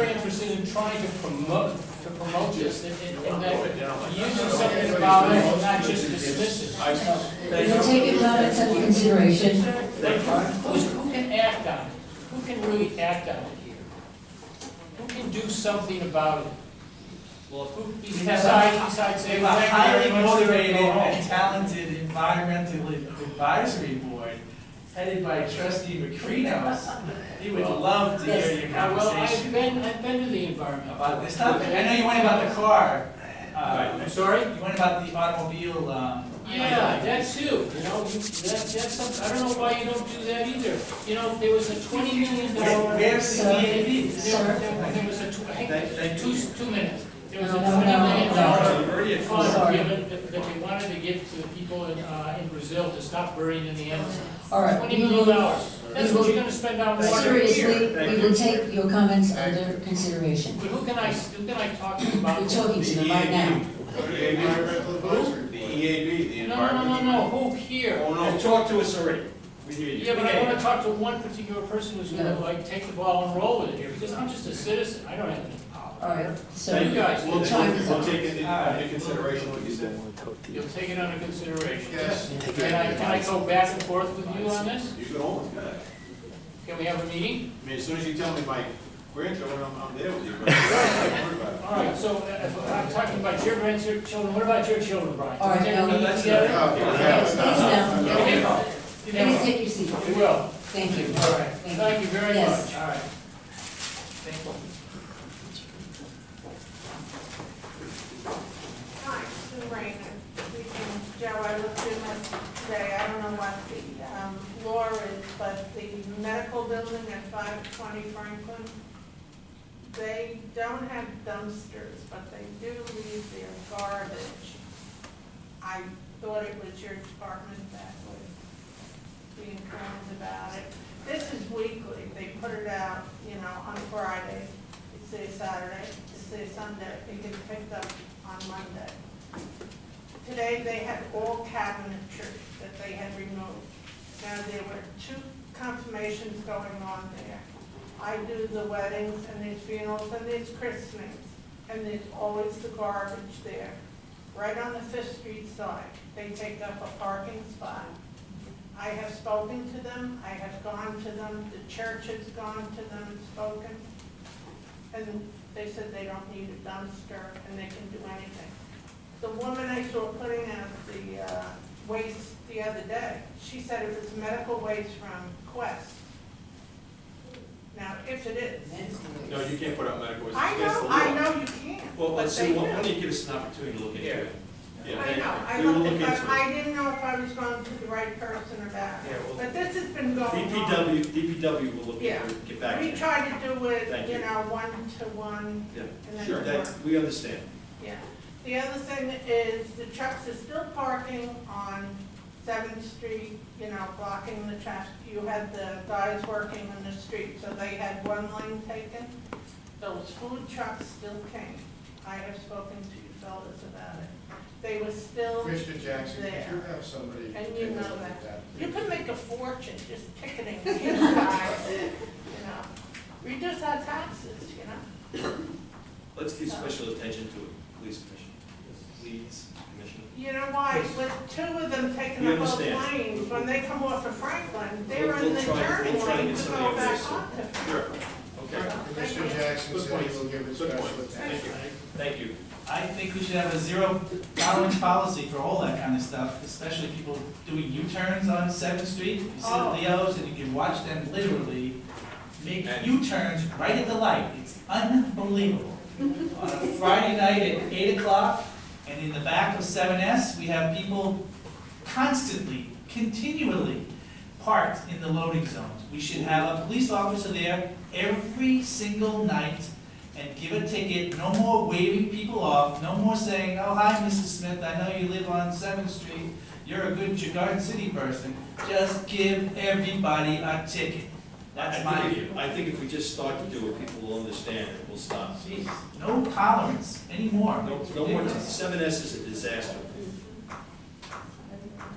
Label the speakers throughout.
Speaker 1: been trying to promote, to promote this, and, and and
Speaker 2: Blow
Speaker 1: that
Speaker 2: it down like
Speaker 1: using something about it, and not just dismiss it.
Speaker 3: We'll take your comments under consideration.
Speaker 1: Like, who's, who can act on it? Who can really act on it here? Who can do something about it?
Speaker 4: Well, if we- we have
Speaker 1: Besides,
Speaker 4: a-
Speaker 1: besides
Speaker 4: we
Speaker 1: saying,
Speaker 4: have a
Speaker 1: thank
Speaker 4: highly
Speaker 1: you very much, we're
Speaker 4: motivated
Speaker 1: gonna go home.
Speaker 4: and talented environmental advisory board headed by trustee McCrenos, he would love to hear your
Speaker 1: Uh, Well, I've
Speaker 4: conversation
Speaker 1: been, I've been to the environment.
Speaker 4: about this topic. I know you went about the car, uh,
Speaker 1: I'm sorry?
Speaker 4: you went about the automobile, um.
Speaker 1: Yeah, that too, you know, you- that, that's something, I don't know why you don't do that either. You know, there was a twenty million
Speaker 4: Where-
Speaker 1: dollar.
Speaker 4: Where's the
Speaker 3: Sir.
Speaker 4: DAB?
Speaker 1: There there- there was a, tw- I
Speaker 2: Thank-
Speaker 1: think,
Speaker 2: thank
Speaker 1: two,
Speaker 2: you.
Speaker 1: two minutes. There was a
Speaker 3: No, no,
Speaker 1: twenty
Speaker 3: no,
Speaker 1: million
Speaker 3: no.
Speaker 1: dollar fund
Speaker 3: Sorry.
Speaker 1: given that that they wanted to give to the people in, uh, in Brazil to stop burning in the Amazon.
Speaker 3: All right.
Speaker 1: Twenty
Speaker 3: we will-
Speaker 1: million dollars, that's what you're gonna spend on water here.
Speaker 3: Seriously, we will take your comments under consideration.
Speaker 1: But who can I, who can I talk to about?
Speaker 3: We're
Speaker 1: this?
Speaker 3: talking to them right now.
Speaker 2: The EAB, the
Speaker 1: No, no, no, no,
Speaker 2: environment.
Speaker 1: no, who here?
Speaker 2: Oh,
Speaker 5: They
Speaker 2: no.
Speaker 5: talked to us already.
Speaker 2: We hear you.
Speaker 1: Yeah, but I wanna talk to one particular person who's gonna like take the ball and roll with it here, because I'm just a citizen, I don't have any power.
Speaker 3: All right, so.
Speaker 1: Thank you guys,
Speaker 2: We'll, we'll
Speaker 3: Time is up.
Speaker 2: we'll take into into consideration what you said.
Speaker 1: you'll take it under consideration. Yes. Can I, can I go back and forth with you on this?
Speaker 2: You can always, yeah.
Speaker 1: Can we have a meeting?
Speaker 2: I mean, as soon as you tell me my grandchildren, I'm, I'm there with you. but I'm not worried about it.
Speaker 1: All right, so, uh, if I'm talking about your grandchildren, what about your children, Brian? Can we
Speaker 3: All right,
Speaker 1: take a
Speaker 3: no,
Speaker 1: meeting
Speaker 3: that's-
Speaker 1: together?
Speaker 2: Okay, we're
Speaker 3: Please
Speaker 2: having-
Speaker 3: now,
Speaker 1: Okay.
Speaker 3: please take your seat.
Speaker 1: We will,
Speaker 3: Thank you.
Speaker 1: all right,
Speaker 3: Thank you.
Speaker 1: thank you very
Speaker 3: Yes.
Speaker 1: much, all right.
Speaker 4: Thank you.
Speaker 6: Hi, Sue Rayner. We can, Joe, I looked in it today, I don't know what the um, floor is, but the medical building at five twenty Franklin, they don't have dumpsters, but they do leave their garbage. I thought it was your department that would be informed about it. This is weekly, they put it out, you know, on Friday, it's a Saturday, it's a Sunday, it gets picked up on Monday. Today, they had all cabinetry that they had removed. Now, there were two confirmations going on there. I do the weddings, and there's funerals, and there's christenings, and there's always the garbage there. Right on the Fifth Street side, they take up a parking spot. I have spoken to them, I have gone to them, the church has gone to them and spoken. And they said they don't need a dumpster and they can do anything. The woman I saw putting out the uh, waste the other day, she said it was medical waste from Quest. Now, if it is,
Speaker 2: No, you can't put out medical. waste.
Speaker 6: I
Speaker 2: That's the
Speaker 6: know,
Speaker 2: law.
Speaker 6: I know you can't,
Speaker 5: Well,
Speaker 6: but
Speaker 5: let's
Speaker 6: they
Speaker 5: see,
Speaker 6: do.
Speaker 5: why don't you give us an opportunity to look into it?
Speaker 2: Yeah,
Speaker 6: I
Speaker 2: thank
Speaker 6: know, I
Speaker 2: you. We will
Speaker 6: looked,
Speaker 2: look
Speaker 6: at-
Speaker 2: into it.
Speaker 6: but I didn't know if I was going to the right person about
Speaker 5: Yeah,
Speaker 6: it.
Speaker 5: well-
Speaker 6: But this has been going on.
Speaker 5: DPW, DPW will look
Speaker 6: Yeah.
Speaker 5: into it, get back to
Speaker 6: We
Speaker 5: you.
Speaker 6: try to do
Speaker 5: Thank
Speaker 6: it, you
Speaker 5: you.
Speaker 6: know, one to one, and
Speaker 5: Yeah,
Speaker 6: then
Speaker 5: sure,
Speaker 6: tomorrow.
Speaker 5: that, we understand.
Speaker 6: yeah. The other thing is the trucks are still parking on Seventh Street, you know, blocking the traffic. You had the guys working in the street, so they had one lane taken. Those food trucks still came. I have spoken to you fellas about it. They were still,
Speaker 7: Mr. Jackson, could you
Speaker 6: There.
Speaker 7: have somebody?
Speaker 6: And you
Speaker 7: take a
Speaker 6: know
Speaker 7: look at
Speaker 6: you could make a fortune just ticketing these guys, you know. Reduce our taxes, you know.
Speaker 5: Let's give special attention to it, please, Commissioner. Please, Commissioner.
Speaker 6: You know why, with two of them taking
Speaker 5: We
Speaker 6: up both
Speaker 5: understand.
Speaker 6: lanes, when they come off of Franklin, they're
Speaker 5: We'll-
Speaker 6: on the
Speaker 5: we'll try-
Speaker 6: turn
Speaker 5: we'll try and
Speaker 6: lane
Speaker 5: get
Speaker 6: to
Speaker 5: somebody
Speaker 6: go
Speaker 5: on this.
Speaker 6: back on.
Speaker 5: Sure, okay,
Speaker 7: Mr. Jackson
Speaker 2: Good
Speaker 7: said
Speaker 2: point.
Speaker 7: he will give it
Speaker 2: Good
Speaker 7: special
Speaker 2: point.
Speaker 7: attention.
Speaker 5: thank you.
Speaker 4: I think we should have a zero tolerance policy for all that kind of stuff, especially people doing U-turns on Seventh Street. You see the
Speaker 6: Oh.
Speaker 4: Leos and you can watch them literally make
Speaker 2: And-
Speaker 4: U-turns right at the light. It's unbelievable. On a Friday night at eight o'clock, and in the back of 7S, we have people constantly, continually parked in the loading zones. We should have a police officer there every single night and give a ticket, no more waving people off, no more saying, oh, hi, Mrs. Smith, I know you live on Seventh Street, you're a good Garden City person, just give everybody a ticket. That's my
Speaker 5: I
Speaker 4: view.
Speaker 5: think if- I think if we just start to do it, people will understand and we'll stop.
Speaker 4: Jeez, no tolerance anymore.
Speaker 5: No, no more, seven S is a disaster.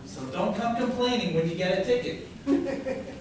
Speaker 4: So don't come complaining when you get a ticket.